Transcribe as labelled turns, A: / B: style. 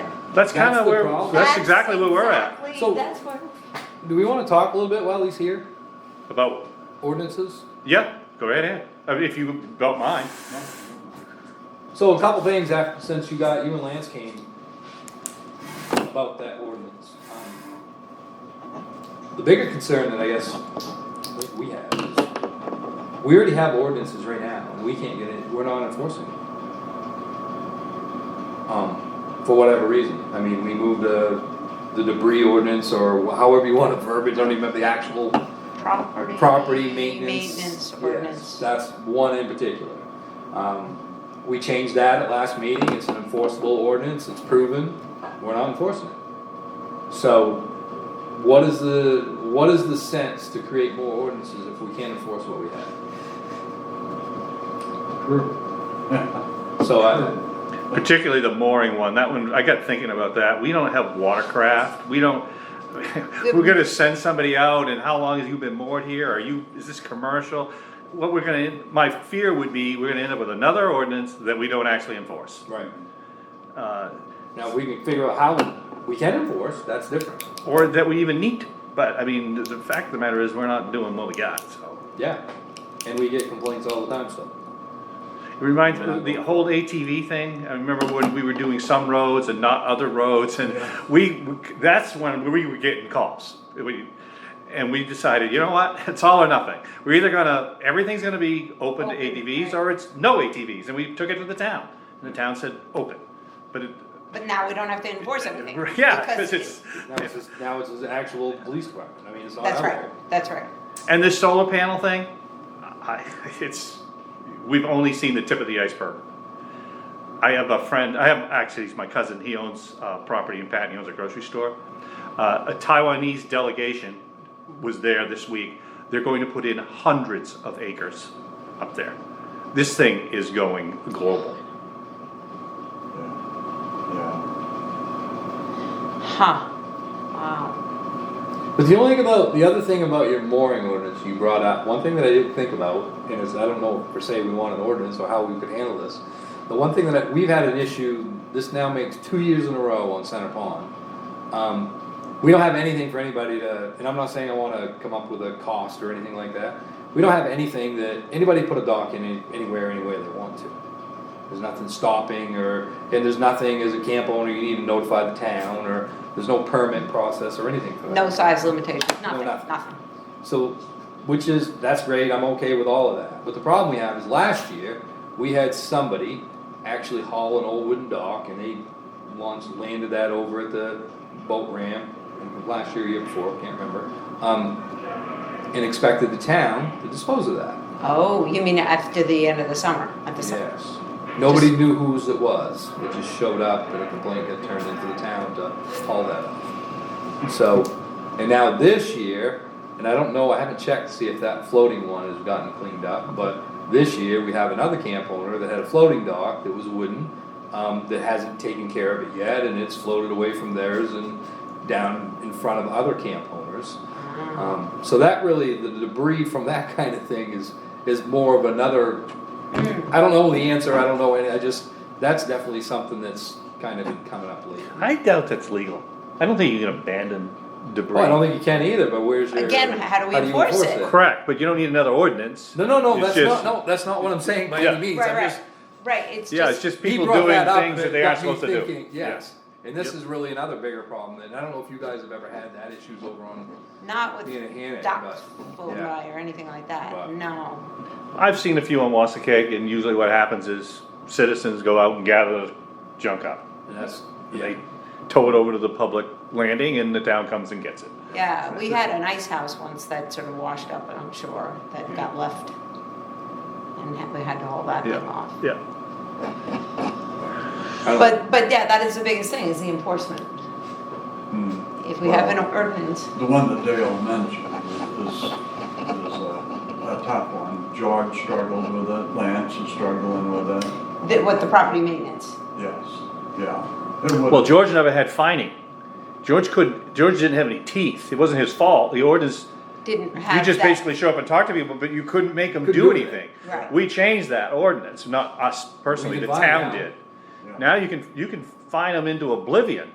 A: That's kind
B: That's
A: of
B: the
A: where,
B: problem.
A: that's exactly where we're at.
C: exactly-
B: So-
C: That's where,
B: Do we wanna talk a little bit while he's here?
A: About,
B: Ordinances?
A: yeah, go right ahead. I mean, if you don't mind.
B: So a couple things after, since you got, you and Lance came about that ordinance. Um, The bigger concern that I guess we- we have is, we already have ordinances right now, and we can't get it, we're not enforcing them. Um, for whatever reason, I mean, we moved the, the debris ordinance, or however you wanna verbiage, I don't even have the actual
C: property.
B: property maintenance.
C: Maintenance
B: yes,
C: ordinance.
B: That's one in particular. Um, we changed that at last meeting, it's an enforceable ordinance, it's proven, we're not enforcing it. So, what is the, what is the sense to create more ordinances if we can't enforce what we have? So I,
A: Particularly the mooring one, that one, I got thinking about that, we don't have watercraft, we don't, we're gonna send somebody out, and how long have you been moored here, are you, is this commercial? What we're gonna, my fear would be, we're gonna end up with another ordinance that we don't actually enforce.
B: right,
A: Uh,
B: now we can figure out how we can enforce, that's different,
A: Or that we even need, to. but, I mean, the- the fact of the matter is, we're not doing what we got, so.
B: yeah. And we get complaints all the time, so.
A: It reminds me of the whole ATV thing. I remember when we were doing some roads and not other roads, and we, that's when we were getting calls. We- And we decided, you know what, it's all or nothing. We're either gonna, everything's gonna be open to
C: Open,
A: ATVs,
C: right.
A: or it's no ATVs, and we took it to the town. And the town said, open, but it,
C: But now we don't have to enforce everything.
A: yeah, because it's,
B: Now it's, just- now it's the actual police department, I mean, it's not
C: That's
B: our
C: right,
B: fault.
C: that's right.
A: and this solar panel thing, I, it's, we've only seen the tip of the iceberg. I have a friend, I have, actually, he's my cousin, he owns, uh, property in Patton, he owns a grocery store. Uh, a Taiwanese delegation was there this week, they're going to put in hundreds of acres up there. This thing is going global.
D: Yeah.
C: Huh. Wow.
B: But the only thing about, the other thing about your mooring ordinance you brought up, one thing that I didn't think about, and is, I don't know per se we want an ordinance or how we could handle this. The one thing that, I- we've had an issue, this now makes two years in a row on Center Pond. Um, we don't have anything for anybody to, and I'm not saying I wanna come up with a cost or anything like that. We don't have anything that, anybody put a dock in any- anywhere, any way they want to. There's nothing stopping or, and there's nothing as a camp owner, you need to notify the town or there's no permit process or anything for that.
C: No size limitation, nothing,
B: nothing.
C: nothing.
B: So, which is, that's great, I'm okay with all of that, but the problem we have is last year, we had somebody actually haul an old wooden dock and they launched, landed that over at the boat ramp, last year, year before, can't remember. Um, and expected the town to dispose of that.
C: Oh, you mean after the end of the summer, at the summer?
B: Yes. Nobody knew whose it was, it just showed up and a complaint got turned into the town to haul that off. So, and now this year, and I don't know, I haven't checked to see if that floating one has gotten cleaned up, but this year, we have another camp owner that had a floating dock that was wooden, um, that hasn't taken care of it yet, and it's floated away from theirs and down in front of other camp owners.
C: Mm-hmm.
B: Um, so that really, the debris from that kind of thing is, is more of another I don't know the answer, I don't know, any I just, that's definitely something that's kind of been coming up lately.
A: I doubt that's legal. I don't think you can abandon debris.
B: Well, I don't think you can either, but where's your?
C: Again, how do we
B: you
C: enforce it?
A: Correct, but you don't need another ordinance.
B: No, no, no,
A: It's
B: that's
A: just-
B: not, no, that's not what I'm saying by
A: Yeah.
B: any means,
C: Right,
B: I'm
C: right,
B: just.
C: right, it's just.
A: Yeah, it's just
B: he
A: people
B: brought
A: doing
B: up,
A: things
B: but
A: that they
B: got
A: aren't
B: me
A: supposed to do.
B: thinking,
A: Yeah.
B: Yes, and this
A: Yep.
B: is really another bigger problem, and I don't know if you guys have ever had that issues over on,
C: Not
B: Being a hand
C: with
B: it,
C: ducks
B: but-
C: full
B: yeah.
C: dry or anything like that,
B: But-
C: no.
A: I've seen a few on Wasacake, and usually what happens is citizens go out and gather the junk up.
B: and that's,
A: And
B: yeah,
A: They tow it over to the public landing, and the town comes and gets it.
C: Yeah, we had an ice house once that sort of washed up, I'm sure, that got left. And ha- we had to haul that thing
A: Yeah,
C: off.
A: yeah.
B: I don't-
C: But, but yeah, that is the biggest thing, is the enforcement.
D: Hmm.
C: If we have an
D: Well-
C: ordinance,
D: The one that Dale mentioned is, is a, a tough one. George struggled with it, Lance is struggling with it,
C: that what the property maintenance,
D: yes, yeah. It would-
A: Well, George never had fining. George couldn't, George didn't have any teeth. It wasn't his fault. The ordinance,
C: didn't have that.
A: you just basically show up and talk to people, but you couldn't make them
B: Couldn't
A: do
B: do it.
A: anything.
C: Right.
A: We changed that ordinance, not us personally, the
B: defined
A: town
B: now.
A: did.
D: Yeah.
A: Now you can, you can fine them into oblivion.